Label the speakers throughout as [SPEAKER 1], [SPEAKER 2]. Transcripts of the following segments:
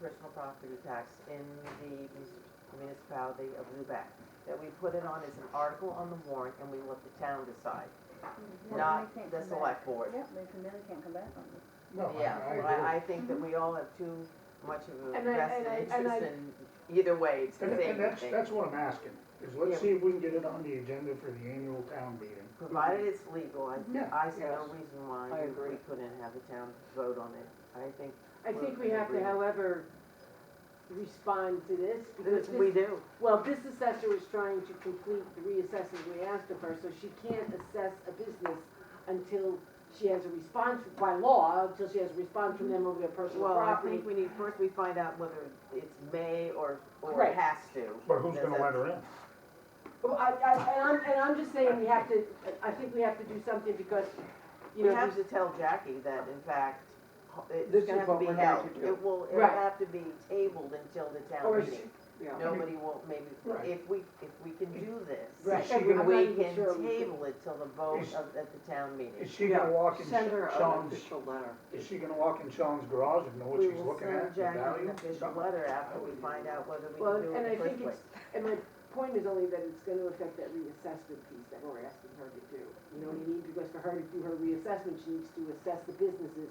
[SPEAKER 1] personal property tax in the municipality of Lubec. That we put it on as an article on the warrant and we let the town decide,
[SPEAKER 2] Well,
[SPEAKER 1] not
[SPEAKER 2] they can't
[SPEAKER 1] the
[SPEAKER 2] come
[SPEAKER 1] select board.
[SPEAKER 2] back. Yep, they can, they can't come back on this.
[SPEAKER 3] No, I,
[SPEAKER 1] Yeah, but
[SPEAKER 3] I agree.
[SPEAKER 1] I, I think that we all have too much of a
[SPEAKER 4] And I-
[SPEAKER 1] vested
[SPEAKER 4] and I- and
[SPEAKER 1] interest in either way, it's the
[SPEAKER 3] And,
[SPEAKER 1] same
[SPEAKER 3] and that's,
[SPEAKER 1] thing.
[SPEAKER 3] that's what I'm asking, is
[SPEAKER 1] Yeah.
[SPEAKER 3] let's see if we can get it on the agenda for the annual town meeting.
[SPEAKER 1] Provided it's legal, I,
[SPEAKER 3] Yeah,
[SPEAKER 1] I see no
[SPEAKER 3] yes.
[SPEAKER 1] reason why
[SPEAKER 5] I
[SPEAKER 1] we
[SPEAKER 5] agree.
[SPEAKER 1] we couldn't have the town vote on it. I think
[SPEAKER 4] I think we have to, however, respond to this, because
[SPEAKER 1] that we
[SPEAKER 4] this,
[SPEAKER 1] do.
[SPEAKER 4] well, this assessor is trying to complete the reassessment we asked of her, so she can't assess a business until she has a response, by law, until she has a response from them over their personal
[SPEAKER 1] Well, I
[SPEAKER 4] property.
[SPEAKER 1] think we need, first we find out whether it's may or, or
[SPEAKER 4] Right.
[SPEAKER 1] it has to.
[SPEAKER 3] But who's
[SPEAKER 1] Does
[SPEAKER 3] gonna
[SPEAKER 1] that-
[SPEAKER 3] let her in?
[SPEAKER 4] Well, I, I, and I'm, and I'm just saying, we have to, I think we have to do something, because, you
[SPEAKER 1] You
[SPEAKER 4] know,
[SPEAKER 1] have
[SPEAKER 4] these-
[SPEAKER 1] to tell Jackie that in fact, it's
[SPEAKER 5] This is
[SPEAKER 1] gonna have to
[SPEAKER 5] what
[SPEAKER 1] be
[SPEAKER 5] we're going
[SPEAKER 1] held.
[SPEAKER 5] to do.
[SPEAKER 1] It will, it'll
[SPEAKER 4] Right.
[SPEAKER 1] have to be tabled until the
[SPEAKER 4] Or
[SPEAKER 1] town
[SPEAKER 4] she-
[SPEAKER 1] meeting.
[SPEAKER 5] Yeah.
[SPEAKER 1] Nobody will, maybe,
[SPEAKER 3] Right.
[SPEAKER 1] if we, if we can do this,
[SPEAKER 3] Right. Is she
[SPEAKER 1] we
[SPEAKER 3] gonna-
[SPEAKER 4] I'm not even
[SPEAKER 1] can
[SPEAKER 4] sure we
[SPEAKER 1] table it till the vote
[SPEAKER 3] Is-
[SPEAKER 1] of, at the town meeting.
[SPEAKER 3] Is she gonna
[SPEAKER 5] Yeah,
[SPEAKER 3] walk in
[SPEAKER 5] Send her an
[SPEAKER 3] Sean's,
[SPEAKER 5] official letter.
[SPEAKER 3] is she gonna walk in Sean's garage and know what
[SPEAKER 1] We
[SPEAKER 3] she's
[SPEAKER 1] will
[SPEAKER 3] looking
[SPEAKER 1] send
[SPEAKER 3] at, the
[SPEAKER 1] Jackie
[SPEAKER 3] value?
[SPEAKER 1] an official letter after we find out whether we
[SPEAKER 4] Well,
[SPEAKER 1] can do
[SPEAKER 4] and
[SPEAKER 1] it
[SPEAKER 4] I
[SPEAKER 1] in the first
[SPEAKER 4] think
[SPEAKER 1] place.
[SPEAKER 4] it's- And my point is only that it's gonna affect that reassessment piece that we're asking her to do. You know what I mean? Because for her to do her reassessment, she needs to assess the businesses.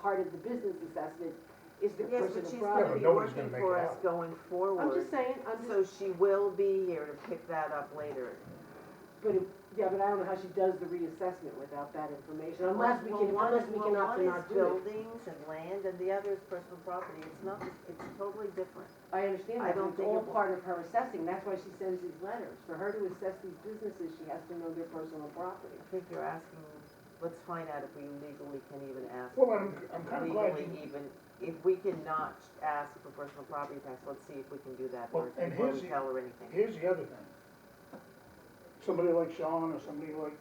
[SPEAKER 4] Part of the business assessment is the
[SPEAKER 1] Yes, but
[SPEAKER 4] personal
[SPEAKER 1] she's gonna
[SPEAKER 3] Yeah, but
[SPEAKER 1] be
[SPEAKER 4] property.
[SPEAKER 3] nobody's
[SPEAKER 1] working
[SPEAKER 3] gonna make
[SPEAKER 1] for
[SPEAKER 3] it
[SPEAKER 1] us
[SPEAKER 3] out.
[SPEAKER 1] going
[SPEAKER 4] I'm
[SPEAKER 1] forward,
[SPEAKER 4] just saying, I'm just,
[SPEAKER 1] so she will be here to pick that up later.
[SPEAKER 4] but, it- yeah, but I don't know how she does the reassessment without that information, unless we
[SPEAKER 1] Well,
[SPEAKER 4] can,
[SPEAKER 1] one
[SPEAKER 4] unless
[SPEAKER 1] is-
[SPEAKER 4] we
[SPEAKER 1] well,
[SPEAKER 4] can opt in
[SPEAKER 1] One
[SPEAKER 4] our
[SPEAKER 1] is
[SPEAKER 4] building.
[SPEAKER 1] buildings and land, and the other is personal property, it's not, it's totally different.
[SPEAKER 4] I understand
[SPEAKER 1] I
[SPEAKER 4] that,
[SPEAKER 1] don't
[SPEAKER 4] but it's
[SPEAKER 1] think
[SPEAKER 4] all
[SPEAKER 1] it will.
[SPEAKER 4] part of her assessing, that's why she sends these letters. For her to assess these businesses, she has to know their personal property.
[SPEAKER 1] I think you're asking, let's find out if we legally can even ask.
[SPEAKER 3] Well, I'm, I'm kinda glad
[SPEAKER 1] Legally
[SPEAKER 3] you,
[SPEAKER 1] even, if we cannot ask for personal property tax, let's see if we can do that
[SPEAKER 3] Well,
[SPEAKER 1] first
[SPEAKER 3] and
[SPEAKER 1] before we
[SPEAKER 3] here's the-
[SPEAKER 1] tell her anything.
[SPEAKER 3] here's the other thing. Somebody like Sean or somebody like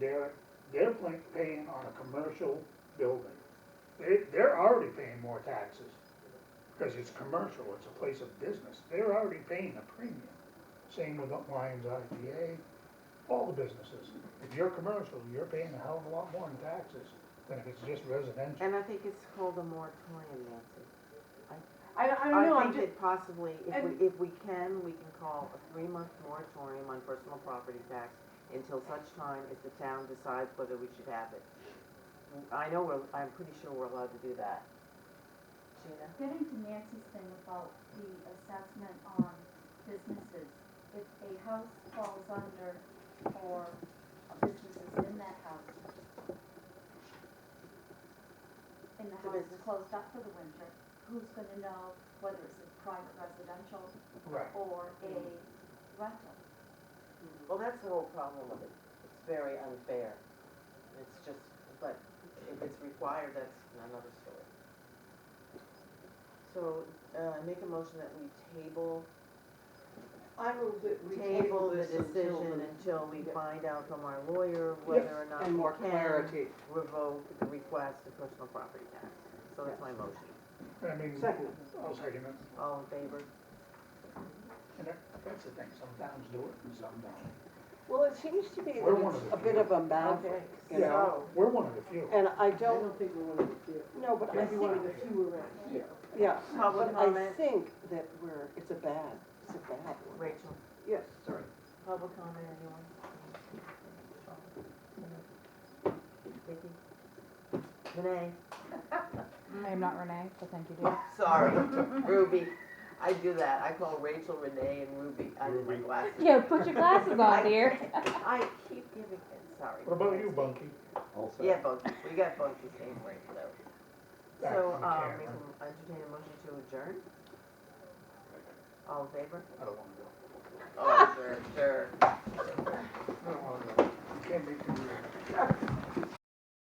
[SPEAKER 3] Derek, they're pla- paying on a commercial building. They, they're already paying more taxes, because it's commercial, it's a place of business, they're already paying a premium. Same with Lions IGA, all the businesses. If you're commercial, you're paying a hell of a lot more in taxes than if it's just residential.
[SPEAKER 1] And I think it's called a moratorium, Nancy.
[SPEAKER 4] I, I don't know, I'm
[SPEAKER 1] think
[SPEAKER 4] just,
[SPEAKER 1] that possibly, if
[SPEAKER 4] and-
[SPEAKER 1] we, if we can, we can call a three-month moratorium on personal property tax until such time as the town decides whether we should have it. I know we're, I'm pretty sure we're allowed to do that. Gina?
[SPEAKER 6] Getting to Nancy's thing about the assessment on businesses, if a house falls under or a business is in that house, and the
[SPEAKER 1] The
[SPEAKER 6] house is
[SPEAKER 1] business.
[SPEAKER 6] closed up for the winter, who's gonna know whether it's a private residential
[SPEAKER 3] Right.
[SPEAKER 6] or a rental?
[SPEAKER 1] Mm-hmm. Well, that's the whole problem of it. It's very unfair. It's just, but if it's required, that's another story. So, uh, make a motion that we table,
[SPEAKER 5] I move that we
[SPEAKER 1] table the
[SPEAKER 5] this until
[SPEAKER 1] decision
[SPEAKER 5] the-
[SPEAKER 1] until we
[SPEAKER 5] Yeah.
[SPEAKER 1] find out from our lawyer whether or not
[SPEAKER 5] And more
[SPEAKER 1] we can
[SPEAKER 5] clarity.
[SPEAKER 1] revoke the request of personal property tax. So that's my motion.
[SPEAKER 3] I mean,
[SPEAKER 5] Second.
[SPEAKER 3] I'll second it.
[SPEAKER 1] All in favor?
[SPEAKER 3] And that- that's the thing, sometimes do it and some don't.
[SPEAKER 5] Well, it seems to me
[SPEAKER 3] We're
[SPEAKER 5] that
[SPEAKER 3] one
[SPEAKER 5] it's
[SPEAKER 3] of the
[SPEAKER 5] a bit
[SPEAKER 3] few.
[SPEAKER 5] of a maverick, you know?
[SPEAKER 3] We're one of the few.
[SPEAKER 5] And I
[SPEAKER 4] I
[SPEAKER 5] don't,
[SPEAKER 4] don't think we're one of the few.
[SPEAKER 5] no, but I
[SPEAKER 4] Maybe one of
[SPEAKER 5] think,
[SPEAKER 4] the few around.
[SPEAKER 5] yeah,
[SPEAKER 1] Public
[SPEAKER 5] but I
[SPEAKER 1] comment.
[SPEAKER 5] think that we're, it's a bad, it's a bad one.
[SPEAKER 1] Rachel,
[SPEAKER 5] Yes, sorry.
[SPEAKER 1] public comment, anyone? Vicky? Renee?
[SPEAKER 7] I am not Renee, but thank you, dear.
[SPEAKER 1] Sorry, Ruby. I do that. I call Rachel Renee and Ruby. I do my
[SPEAKER 3] Ruby.
[SPEAKER 1] glasses.
[SPEAKER 7] Yeah, put your glasses on, dear.
[SPEAKER 1] I keep giving it. Sorry.
[SPEAKER 3] What about you, Bunky?
[SPEAKER 8] Also,
[SPEAKER 1] Yeah, Bunky. We got Bunky same right though.
[SPEAKER 3] Back
[SPEAKER 1] So,
[SPEAKER 3] on the
[SPEAKER 1] um, we
[SPEAKER 3] camera.
[SPEAKER 1] can entertain a motion to adjourn. All in favor?
[SPEAKER 3] I don't wanna go.